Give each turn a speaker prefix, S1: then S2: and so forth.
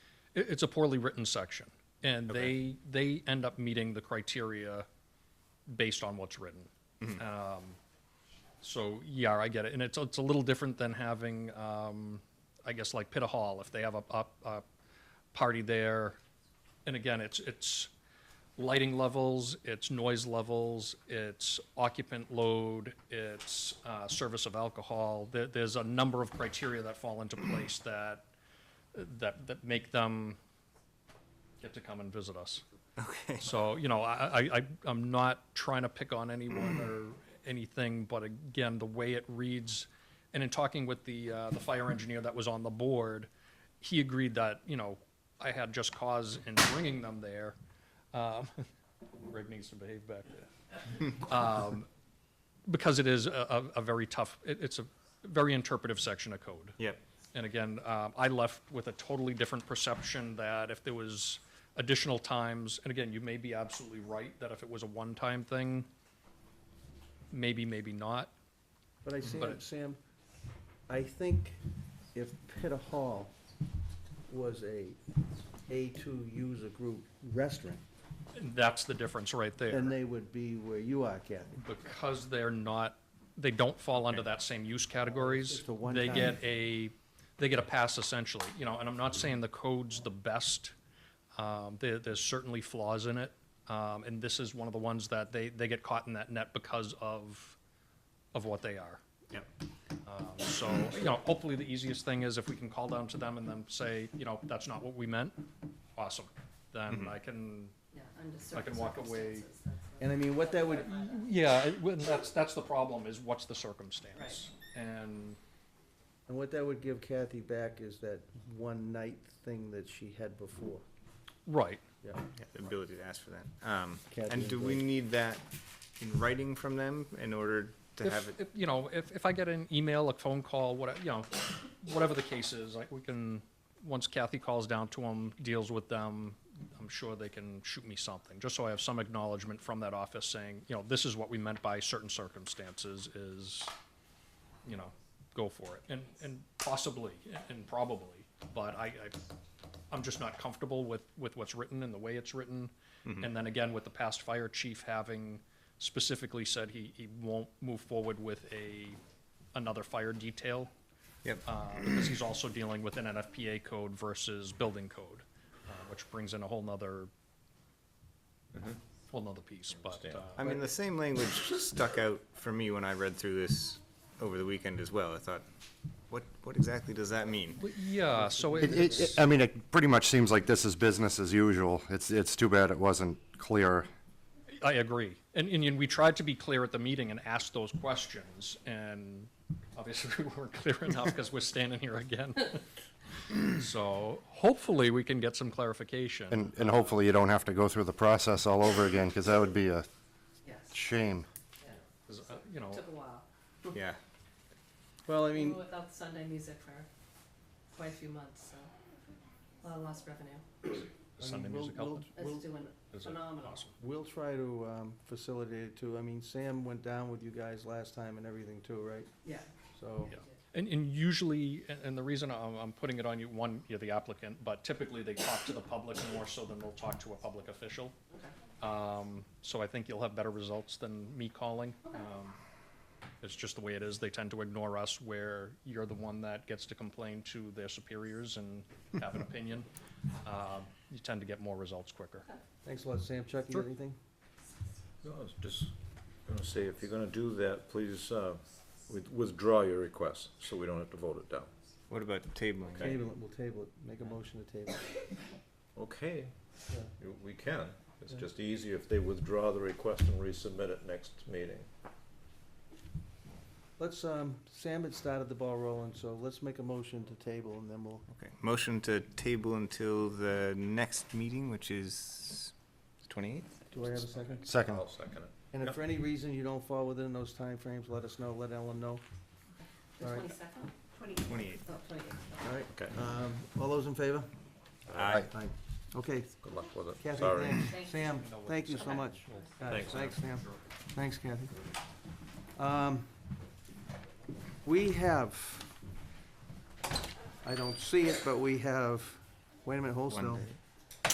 S1: It, it's a poorly written section, and they they end up meeting the criteria based on what's written. Um, so yeah, I get it, and it's it's a little different than having, um, I guess, like Pitta Hall if they have a, a, a party there, and again, it's it's lighting levels, it's noise levels, it's occupant load, it's uh, service of alcohol. There, there's a number of criteria that fall into place that that that make them get to come and visit us.
S2: Okay.
S1: So, you know, I, I, I- I'm not trying to pick on anyone or anything, but again, the way it reads, and in talking with the, uh, the fire engineer that was on the board, he agreed that, you know, I had just cause in bringing them there. Um, Greg needs to behave back there. Um, Because it is a, a, a very tough, it, it's a very interpretive section of code.
S2: Yep.
S1: And again, um, I left with a totally different perception that if there was additional times, and again, you may be absolutely right, that if it was a one-time thing, maybe, maybe not.
S3: But I, Sam,
S1: But-
S3: Sam, I think if Pitta Hall was a A2 user group restaurant,
S1: That's the difference right
S3: then
S1: there.
S3: they would be where you are, Kathy.
S1: Because they're not, they don't fall under that same use categories.
S3: It's a one
S1: They
S3: time.
S1: get a, they get a pass essentially, you know, and I'm not saying the code's the best. Um, there, there's certainly flaws in it. Um, and this is one of the ones that they, they get caught in that net because of, of what they are.
S2: Yep.
S1: Um, So, you know, hopefully the easiest thing is if we can call down to them and then say, you know, that's not what we meant, awesome. Then I can,
S4: Yeah, under
S1: I
S4: certain
S1: can walk away.
S4: circumstances, that's
S3: And I mean, what that would,
S1: yeah, it- well, that's, that's the problem is what's the circumstance? And,
S3: and what that would give Kathy back is that one night thing that she had before.
S1: right,
S3: Yeah,
S2: Yeah, The ability to ask for that. Um,
S3: Kathy
S2: and
S3: and
S2: do we
S3: Blake.
S2: need that in writing from them in order to
S1: if,
S2: have it?
S1: if, you know, if, if I get an email, a phone call, what, you know, whatever the case is, like, we can, once Kathy calls down to them, deals with them, I'm sure they can shoot me something, just so I have some acknowledgement from that office saying, you know, this is what we meant by certain circumstances is, you know, go for it, and, and possibly, and probably, but I, I, I'm just not comfortable with, with what's written and the way it's written. And then again, with the past fire chief having specifically said he, he won't move forward with a, another fire detail,
S2: Yep.
S1: uh, because he's also dealing with an NFPA code versus building code, uh, which brings in a whole nother, whole nother piece, but,
S5: Understand.
S1: uh,
S2: I mean, the same language stuck out for me when I read through this over the weekend as well. I thought, what, what exactly does that mean?
S1: but yeah, so it-
S6: It, it,
S1: it's,
S6: it- I mean, it pretty much seems like this is business as usual. It's, it's too bad it wasn't clear.
S1: I agree. And, and, and we tried to be clear at the meeting and ask those questions, and obviously we weren't clear enough because we're standing here again. So hopefully we can get some clarification.
S6: And, and hopefully you don't have to go through the process all over again, because that would be a
S4: Yes,
S6: shame.
S1: 'cause, uh, You know,
S4: took a while.
S2: Yeah.
S3: well, I
S4: We
S3: mean,
S4: were without Sunday music for quite a few months, so a lot of lost revenue.
S1: Sunday
S3: we'll-
S1: music
S3: we'll-
S1: helped.
S3: we'll-
S4: It's doing
S1: Is it
S4: phenomenal.
S1: Awesome.
S3: We'll try to um, facilitate it too. I mean, Sam went down with you guys last time and everything too, right?
S4: Yeah,
S3: So,
S1: Yeah. And, and usually, and- and the reason I'm, I'm putting it on you, one, you're the applicant, but typically they talk to the public more so than they'll talk to a public official.
S4: okay.
S1: Um, so I think you'll have better results than me calling. Um, it's just the way it is. They tend to ignore us where you're the one that gets to complain to their superiors and have an opinion. Um, you tend to get more results quicker.
S3: thanks a lot, Sam. Chuck, you
S1: Sure.
S3: got anything?
S5: No, I was just gonna say, if you're gonna do that, please, uh, with- withdraw your request, so we don't have to vote it down.
S2: What about tabling?
S5: Okay.
S3: Table it, we'll table it. Make a motion to table it.
S5: Okay,
S3: Yeah.
S5: you- we can. It's
S3: Yeah.
S5: just easier if they withdraw the request and resubmit it next meeting.
S3: Let's, um, Sam had started the ball rolling, so let's make a motion to table and then we'll,
S2: Okay. Motion to table until the next meeting, which is twenty-eighth?
S3: do I have a second?
S6: Second,
S5: I'll second it.
S3: And if for any reason you don't fall within those timeframes, let us know, let Ellen know.
S4: The
S3: All right.
S4: twenty-second? Twenty.
S2: Twenty-eighth.
S4: Oh, twenty-eighth.
S3: All right,
S5: Okay,
S3: um, all those in favor?
S6: Aye.
S3: Aye. Okay,
S5: good luck with it.
S3: Kathy,
S5: Sorry.
S3: thanks.
S4: Thank
S3: Sam,
S1: you.
S3: thank you so
S4: Okay.
S3: much. All right,
S5: Thanks,
S3: Thanks, Sam. Thanks, Kathy. Um, We have, I don't see it, but we have
S7: Wait a minute, hold
S3: One
S7: still.
S3: day.